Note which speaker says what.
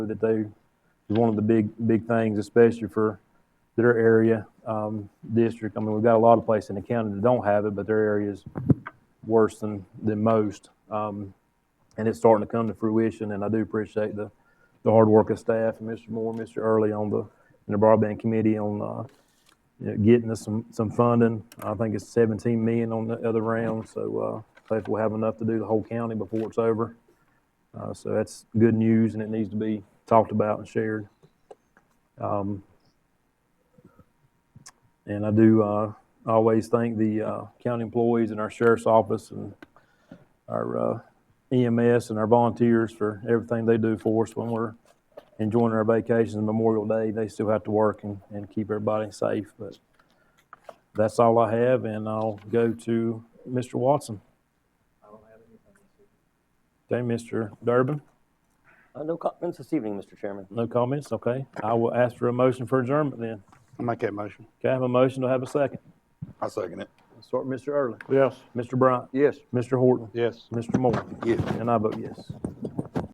Speaker 1: that they is one of the big big things, especially for their area um, district. I mean, we've got a lot of places in the county that don't have it, but their area is worse than than most. Um, and it's starting to come to fruition. And I do appreciate the the hard work of staff and Mr. Moore, Mr. Early on the and the broadband committee on uh, you know, getting us some some funding. I think it's 17 million on the other round. So uh, hopefully we'll have enough to do the whole county before it's over. Uh, so that's good news, and it needs to be talked about and shared. Um, and I do uh, always thank the uh, county employees and our sheriff's office and our uh, EMS and our volunteers for everything they do for us when we're enjoying our vacations and Memorial Day. They still have to work and, and keep everybody safe. But that's all I have, and I'll go to Mr. Watson. Okay, Mr. Durbin,
Speaker 2: Uh, No comments this evening, Mr. Chairman.
Speaker 1: no comments, okay. I will ask for a motion for adjournment then.
Speaker 3: I make that motion.
Speaker 1: Okay, I have a motion, to have a second?
Speaker 3: I second it.
Speaker 1: Start with Mr. Early,
Speaker 3: Yes.
Speaker 1: Mr. Bryant,
Speaker 3: Yes.
Speaker 1: Mr. Horton,
Speaker 3: Yes.
Speaker 1: Mr. Moore,
Speaker 3: Yes.
Speaker 1: and I vote yes.